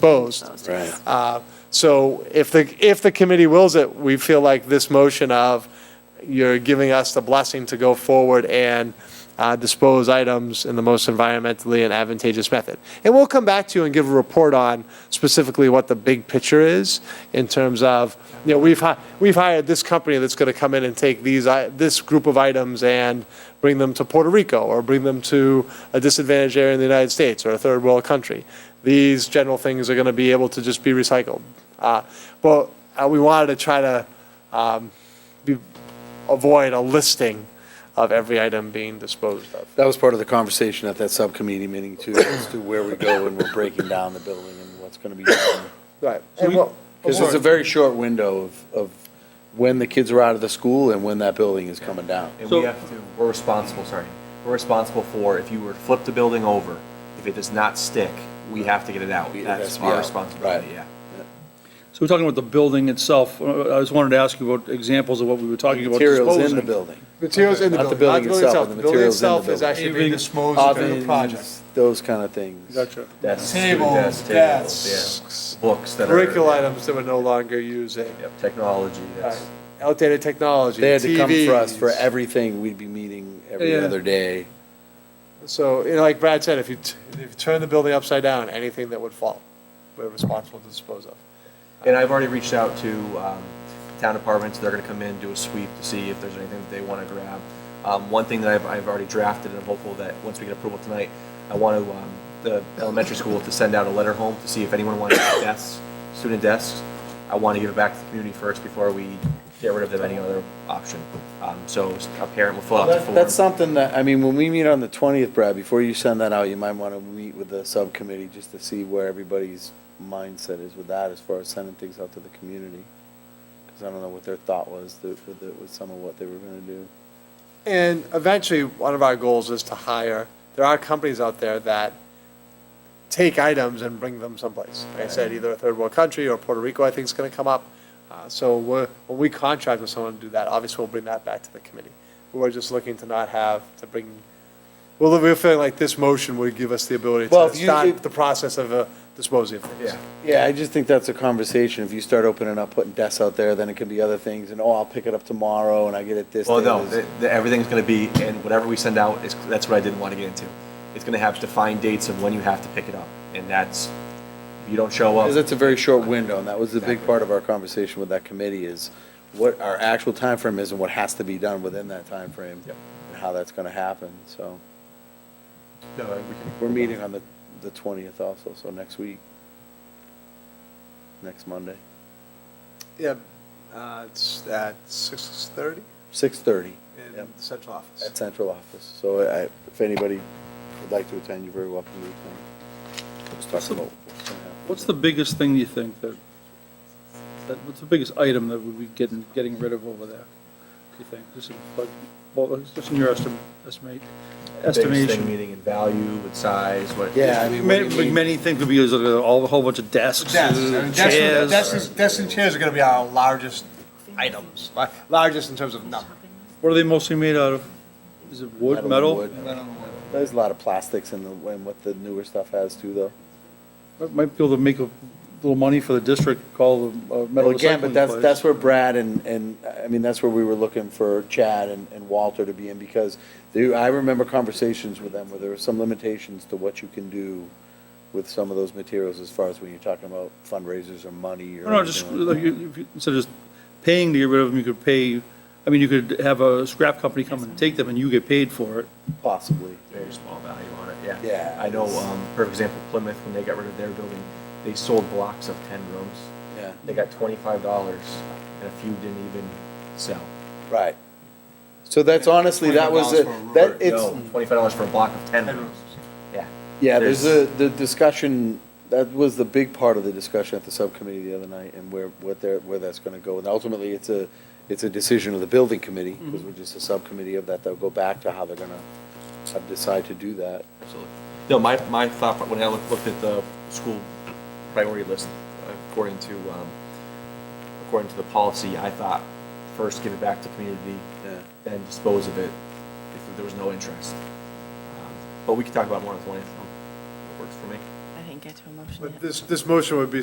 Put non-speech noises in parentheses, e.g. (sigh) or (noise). disposed. Right. Uh, So if the, if the committee wills it, we feel like this motion of you're giving us the blessing to go forward and uh, dispose items in the most environmentally and advantageous method. And we'll come back to you and give a report on specifically what the big picture is in terms of, you know, we've, hi- we've hired this company that's going to come in and take these, i- this group of items and bring them to Puerto Rico or bring them to a disadvantaged area in the United States or a third world country these general things are going to be able to just be recycled. Uh, But uh, we wanted to try to um, be- avoid a listing of every item being disposed of. That was part of the conversation at that subcommittee meeting too, as to where we go when we're breaking down the building and what's going to be done. Right. Because it's a very short window of, of when the kids are out of the school and when that building is coming down. And we have to, we're responsible, sorry, we're responsible for, if you were to flip the building over, if it does not stick, we have to get it out. It has That's to be out, our right. responsibility, yeah. So we're talking about the building itself. Uh, I just wanted to ask you about examples of what we were talking about Materials in the disposing. building. Materials in the Not the building, not the building building itself. itself, The but building itself is the materials in the building. actually being disposed of in the project. Ovens, those kind of things. Gotcha. That's Tables, student desks, desks, tables, yeah. Books that are. Curricular items that we're no longer using. Yep, Technology, Right. yes. Outdated technology, They had to come for us for TVs. everything. We'd be meeting every Yeah. other day. So, you know, like Brad said, if you, t- if you turn the building upside down, anything that would fall, we're responsible to dispose of. And I've already reached out to um, town departments, they're gonna come in, do a sweep to see if there's anything that they wanna grab. Um, One thing that I've, I've already drafted, and I'm hopeful that, once we get approval tonight, I want to, um, the elementary school to send out a letter home to (coughs) see if anyone wants desks, student desks. I want to give it back to the community first before we get rid of them, any other option. Um, So a parent will fill out the That- form. That's something that, I mean, when we meet on the 20th, Brad, before you send that out, you might want to meet with the subcommittee just to see where everybody's mindset is with that as far as sending things out to the community. Because I don't know what their thought was that- with, the- with some of what they were going to do. And eventually, one of our goals is to hire, there are companies out there that take items and bring them someplace. Like I said, either a third world country or Puerto Rico, I think is going to come up. Uh, So we're, when we contract with someone to do that, obviously we'll bring that back to the committee. We're just looking to not have to bring, well, we're feeling like this motion would give us the ability Well, to if you- start if- the process of uh, disposing of things. Yeah. Yeah, I just think that's a conversation. If you start opening up, putting desks out there, then it can be other things, and oh, I'll pick it up tomorrow, and I get it this day. Well, no, this- th- th- everything's going to be, and whatever we send out, is that's what I didn't want to get into. It's going to have defined dates of when you have to pick it up, and that's, if you don't show up. Because it's a very short window, and that was the big part of our conversation with that committee is what our actual time frame is and what has to be done within that time frame, Yep. And how that's gonna happen, so. No, we can- We're meeting on the, the twentieth also, so next week. Next Monday, Yeah, uh, it's at 6:30 six-thirty in the central office. at central office. So I, if anybody would like to attend, you're very welcome to attend. Let's talk about what's gonna happen. What's the biggest thing you think that, that, what's the biggest item that we'd be getting, getting rid of over there? Do you think? Just, in, like, well, just in your estimate, estimate, biggest thing estimation. Meaning in value, with size, what. Yeah, I mean, what do Many, you like, mean? many things could be, is like, all, a whole bunch of desks, Desks, I mean, desks, and- chairs. desks, and- desks and chairs are gonna be our largest items, li- largest in terms of number. What are they mostly made out of? Is it wood, metal? Wood. There's a lot of plastics in the, in what the newer stuff has too, though. Might might be able to make a little money for the district, call the uh, metal Well, recycling place. again, but that's, that's where Brad and, and, I mean, that's where we were looking for Chad and, and Walter to be in, because they, I remember conversations with them where there were some limitations to what you can do with some of those materials as far as when you're talking about fundraisers or money or. No, no, just, anything like like, you- if you- instead of just paying to get rid of them, you could pay, I mean, you could have a scrap company come and take them and you get paid for it. that, Possibly. Very small value on it, yeah. Yeah, I know, it's- um, for example, Plymouth, when they got rid of their building, they sold blocks of ten rooms. Yeah, They got twenty-five dollars, and a few didn't even sell. right. So that's honestly, that was, a- $25 that, it's, No, Twenty-five dollars for a block of ten rooms, yeah. Yeah, there's a, There's- the discussion, that was the big part of the discussion at the subcommittee the other night, and where, what they're, where that's gonna go. And ultimately, it's a, it's a decision of the building committee, because we're just a subcommittee of that, they'll go back to how they're gonna uh, decide to do that. Absolutely. No, my, my thought, pro- when I look- looked at the school priority list, according to, um, according to the policy, I thought first give it back to community, Yeah. then dispose of it if there was no interest. Um, But we could talk about more on the twentieth, works for me. I think get to a motion yet. But this, this motion would be